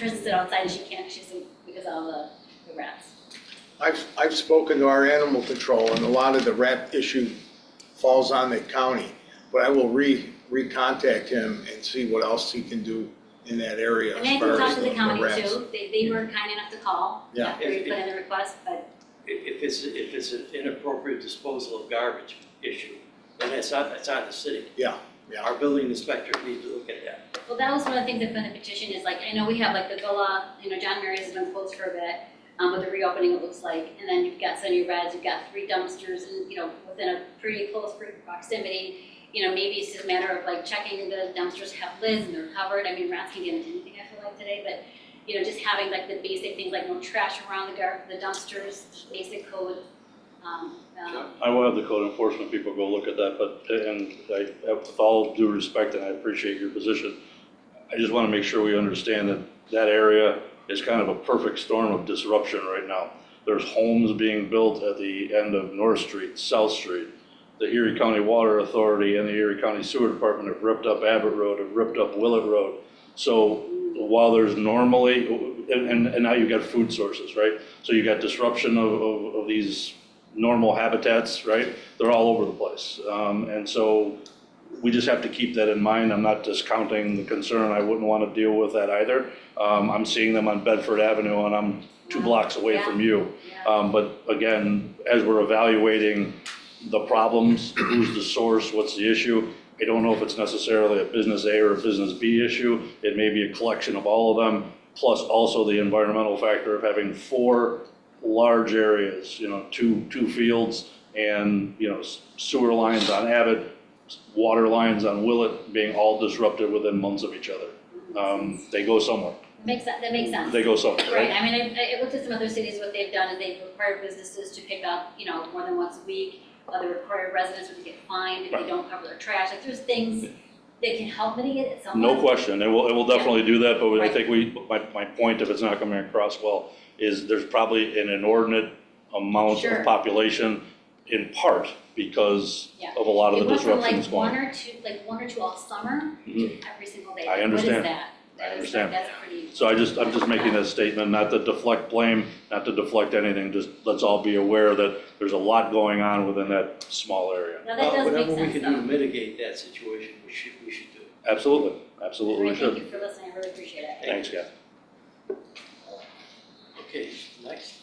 tries to sit outside and she can't, she's, because of all the the rats. I've, I've spoken to our animal control, and a lot of the rat issue falls on the county. But I will re, recontact him and see what else he can do in that area I as mean, I far can talk as to the the county rats. too, they, they were kind enough to call Yeah. after we put in the request, but If, if it's, if it's an inappropriate disposal of garbage issue, then that's on, that's on the city. Yeah, yeah. Our building inspector needs to look at that. Well, that was one of the things that's been the petition is like, I know we have like the villa, you know, John Mary's has been closed for a bit, um, with the reopening it looks like, and then you've got Sunny Reds, you've got three dumpsters and, you know, within a pretty close proximity. You know, maybe it's just a matter of like checking the dumpsters have lids and they're covered, I mean, rats can get into anything I feel like today, but, you know, just having like the basic things like no trash around the gar, the dumpsters, basic code, um, um, I will have the code enforcement people go look at that, but, and I, with all due respect, and I appreciate your position, I just want to make sure we understand that that area is kind of a perfect storm of disruption right now. There's homes being built at the end of North Street, South Street. The Erie County Water Authority and the Erie County Sewer Department have ripped up Abbott Road, have ripped up Willett Road. So while there's normally, and, and- and now you've got food sources, right? So you've got disruption of, of, of these normal habitats, right? They're all over the place. Um, and so we just have to keep that in mind. I'm not discounting the concern. I wouldn't want to deal with that either. Um, I'm seeing them on Bedford Avenue and I'm two blocks away from you. yeah. Um, but again, as we're evaluating the problems, who's the source, what's the issue, I don't know if it's necessarily a business A or a business B issue. It may be a collection of all of them, plus also the environmental factor of having four large areas, you know, two, two fields and, you know, sewer lines on Abbott, water lines on Willett being all disrupted within months of each other. Um, they go somewhere. Makes, sen- that makes sense. They go somewhere, Right, right? I mean, I, I looked at some other cities, what they've done is they've required businesses to pick up, you know, more than once a week. Other required residents would get fined if they Right. don't cover their trash, like there's things that can help mitigate it somewhat. No question, it will, it will definitely do that, but I Um, Right. think we, my, my point, if it's not coming across well, is there's probably an inordinate amount Sure. of population in part because Yeah. of a lot of the disruptions It went going. from like one or two, like one or two all summer to Mhm. every single day. I Like, What is understand. that? I That is, like, understand. That's pretty. So I just, I'm just making that statement, not to deflect blame, not to deflect anything, just let's all be aware that there's a lot going on within that small area. Now, that Uh, does make Whatever we sense can do to though. mitigate that situation, we should, we should do. Absolutely, absolutely Anyway, we Thank should. you for listening, I really appreciate it. Thanks, guys. Okay, next.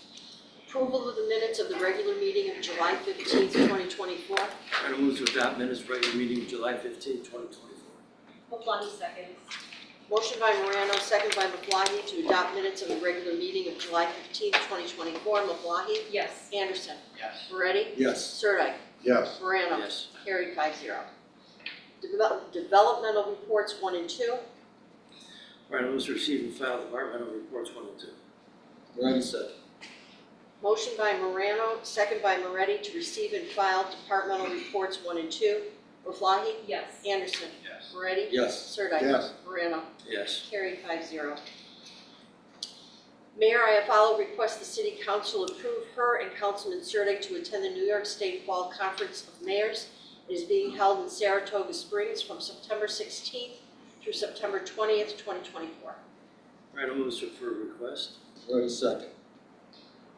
Approval of the minutes of the regular meeting of July fifteenth, twenty twenty-four. Try to move to adopt minutes regular meeting July fifteenth, twenty twenty-four. Maflahe seconds. Motion by Morano, second by Maflahe, to adopt minutes of the regular meeting of July fifteenth, twenty twenty-four. Maflahe? Yes. Anderson? Yes. Moretti? Yes, Sirdike? yes. Morano? Yes. Carried five zero. Devel- Developmental reports one and two. All right, move to receive and file departmental reports one and two. Moretti said. Motion by Morano, second by Moretti, to receive and file departmental reports one and two. Maflahe? Yes. Anderson? Yes. Moretti? Yes. Sirdike? Yes. Morano? Yes. Carried five zero. Mayor Iafallo requests the city council approve her and Councilman Sirdike to attend the New York State Fall Conference of Mayors. It is being held in Saratoga Springs from September sixteenth through September twentieth, twenty twenty-four. All right, move to for request. Moretti second.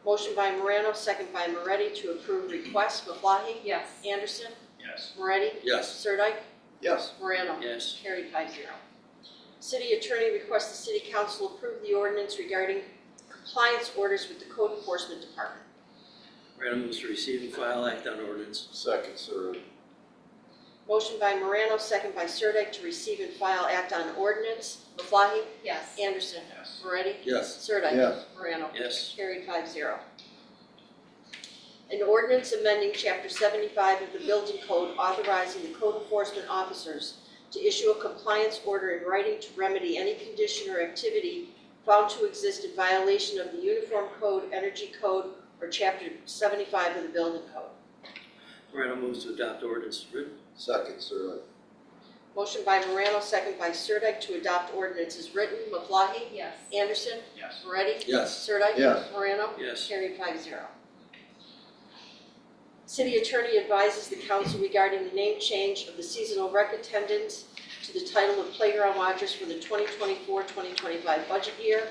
Motion by Morano, second by Moretti to approve request. Maflahe? Yes. Anderson? Yes. Moretti? Yes. Sirdike? Yes. Morano? Yes. Carried five zero. City attorney requests the city council approve the ordinance regarding compliance orders with the code enforcement department. All right, move to receive and file act on ordinance. Second, sir. Motion by Morano, second by Sirdike, to receive and file act on ordinance. Maflahe? Yes. Anderson? Yes. Moretti? Yes. Sirdike? Yes. Morano? Yes. Carried five zero. An ordinance amending chapter seventy-five of the building code authorizing the code enforcement officers to issue a compliance order in writing to remedy any condition or activity found to exist in violation of the Uniform Code, Energy Code, or chapter seventy-five of the building code. All right, move to adopt ordinance as written. Second, sir. Motion by Morano, second by Sirdike, to adopt ordinance is written. Maflahe? Yes. Anderson? Yes. Moretti? Yes. Sirdike? Yes. Morano? Yes. Carried five zero. City attorney advises the council regarding the name change of the seasonal rec attendants to the title of Playground Watchers for the 2024-2025 budget year